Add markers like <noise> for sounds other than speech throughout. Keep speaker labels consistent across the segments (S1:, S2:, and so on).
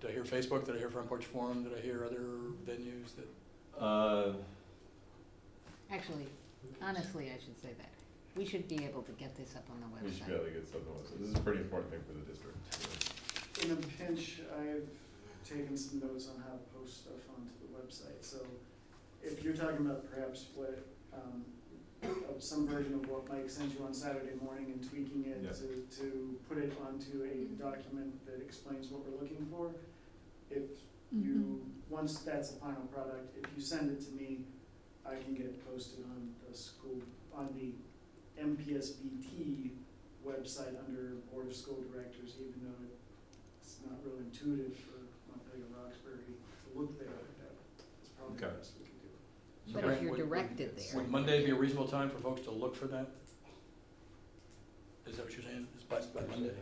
S1: Did I hear Facebook? Did I hear Front Porch Forum? Did I hear other venues that?
S2: Uh,
S3: Actually, honestly, I should say that. We should be able to get this up on the website.
S2: we should be able to get something else. This is a pretty important thing for the district.
S4: In a pinch, I've taken some notes on how to post stuff onto the website, so if you're talking about perhaps what, um, of some version of what Mike sent you on Saturday morning and tweaking it
S2: Yeah.
S4: to, to put it onto a document that explains what we're looking for, if you, once that's a final product, if you send it to me, I can get it posted on the school, on the MPSBT website under Board of School Directors, even though it's not real intuitive for Montpelier Roxbury to look there, that is probably the
S2: Okay.
S4: best we can do.
S3: But
S1: Would-
S3: if you're
S1: would-
S3: directed there,
S1: Would Monday be a reasonable time for folks to look for that? Is that what you're saying? Is by, by Monday?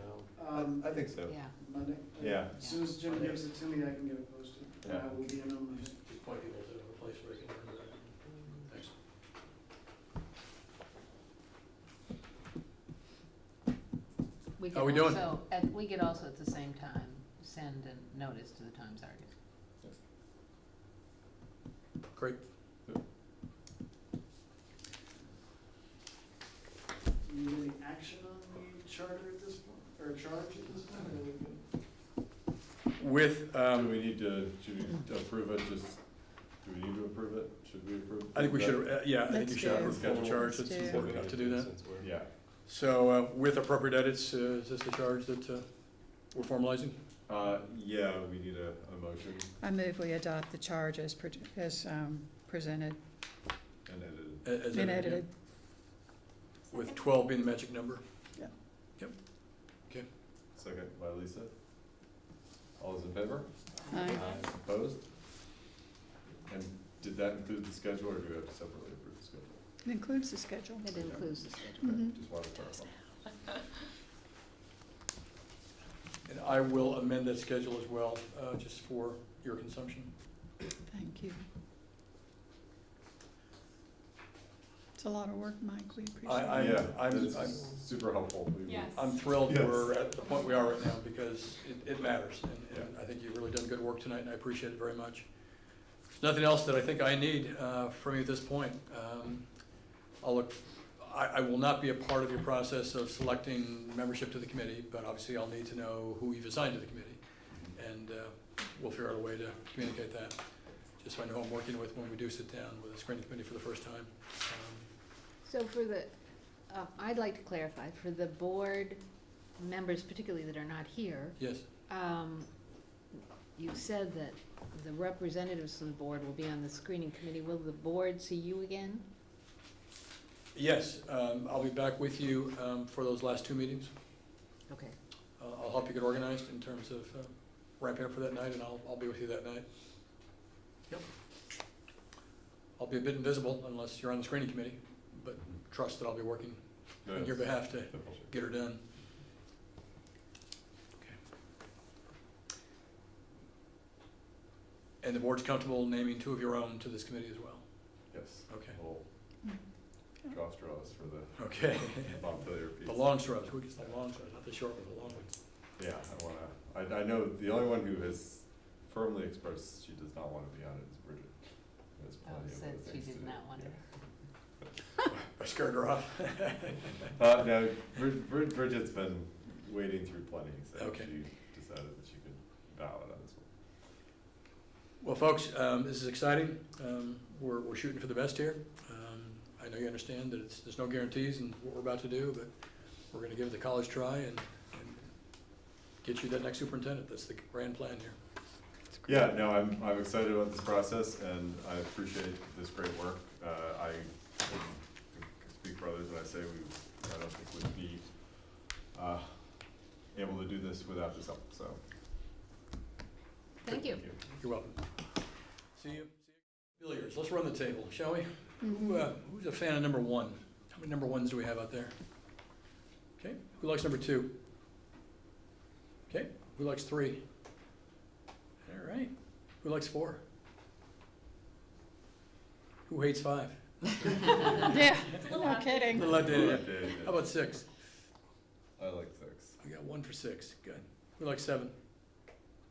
S4: Um,
S2: I think so.
S3: yeah.
S4: Monday?
S2: Yeah.
S4: As soon as Jim gives it to me, I can get it posted, and I
S2: Yeah.
S4: will be in on Monday.
S1: Just point people to a place where they can learn that. Thanks.
S3: We
S1: How we
S3: could
S1: doing?
S3: also- At, we could also at the same time send a notice to the Times Argus.
S1: Great.
S4: Do you need any action on the charter at this point, or charge at this point, or are we good?
S1: With,
S2: Um, do
S1: um,
S2: we need to, should we approve it, just, do we need to approve it? Should we approve?
S1: I think we should, uh,
S2: that?
S1: yeah, I think
S5: Let's
S1: you should
S5: do.
S1: approve the charge.
S5: Let's
S1: It's
S5: do.
S1: important enough to do that.
S2: Yeah,
S1: So uh, with appropriate edits, uh, is this the charge that uh, we're formalizing?
S2: uh, yeah, we need a, a motion
S5: I move we adopt the charge as, pre- as um, presented
S2: and edit
S1: a- as
S5: and
S1: edited?
S5: edited.
S1: With twelve being the magic number?
S2: it. Second by Lisa. All those in favor?
S5: Aye.
S2: Opposed? And did that include the schedule, or do we have to separately approve the schedule?
S5: It includes the schedule.
S3: It includes the schedule.
S2: Okay,
S1: Mm-hmm.
S5: Mhm.
S2: Just wanted to clarify.
S1: And I will amend that schedule as well, uh, just for your consumption.
S5: Thank you. It's a lot of work, Mike. We
S1: I,
S5: appreciate it.
S1: I'm,
S2: Yeah,
S1: I'm,
S2: this
S1: I'm,
S2: is super helpful. We- we-
S6: Yes.
S1: I'm thrilled
S2: Yes.
S1: we're at the point we are right now because it, it matters. And, and I think you've really done good work tonight and I appreciate it very much. There's nothing else that I think I need, uh, from you at this point. Um, I'll look, I, I will not be a part of your process of selecting membership to the committee, but obviously I'll need to know who you've assigned to the committee. And, uh, we'll figure out a way to communicate that, just so I know who I'm working with when we do sit down with the screening committee for the first time. Um,
S3: So for the, uh, I'd like to clarify, for the board members particularly that are not here,
S1: Yes,
S3: um, you said that the representatives of the board will be on the screening committee. Will the board see you again?
S1: yes, um, I'll be back with you, um, for those last two meetings.
S3: Okay.
S1: I'll I'll help you get organized in terms of uh, ramping up for that night, and I'll, I'll be with you that night. Yep. I'll be a bit invisible unless you're on the screening committee, but trust that I'll be working on your
S2: Yes.
S1: behalf to get her done. Okay. And the board's comfortable naming two of your own to this committee as well?
S2: Yes.
S1: Okay,
S2: Little
S3: Mm.
S2: draw straws for the
S1: okay. <laughs>
S2: Montpelier piece.
S1: The long shrubs, who gets the long shrubs, not the short ones, the long ones?
S2: Yeah, I wanna, I, I know the only one who has firmly expressed she does not wanna be on it is Bridget. There's
S3: Oh,
S2: plenty of
S3: said
S2: other
S3: she
S2: things
S3: did
S2: to do.
S3: not want it.
S1: I scared her off. <laughs>
S2: Yeah. Uh, no, Brid- Brid- Bridget's been wading through plenty, so
S1: Okay.
S2: she decided that she could bow out on this one.
S1: Well, folks, um, this is exciting. Um, we're, we're shooting for the best here. Um, I know you understand that it's, there's no guarantees in what we're about to do, but we're gonna give it the college try and, and get you that next superintendent. That's the grand plan here.
S5: It's great.
S2: Yeah, no, I'm, I'm excited about this process and I appreciate this great work. Uh, I can speak for others when I say we, I don't think would be, uh, able to do this without this help, so.
S3: Thank you.
S1: You're welcome. See you, see you. Billiards, let's run the table, shall we? Who,
S3: <laughs>
S1: uh, who's a fan of number one? How many number ones do we have out there? Okay, who likes number two? Okay, who likes three? All right, who likes four? Who hates five?
S5: Yeah,
S6: a little
S5: no
S6: out there.
S5: kidding.
S1: Little outdated.
S2: Okay,
S1: How about six?
S2: I like six.
S1: We got one for six, good. Who likes seven?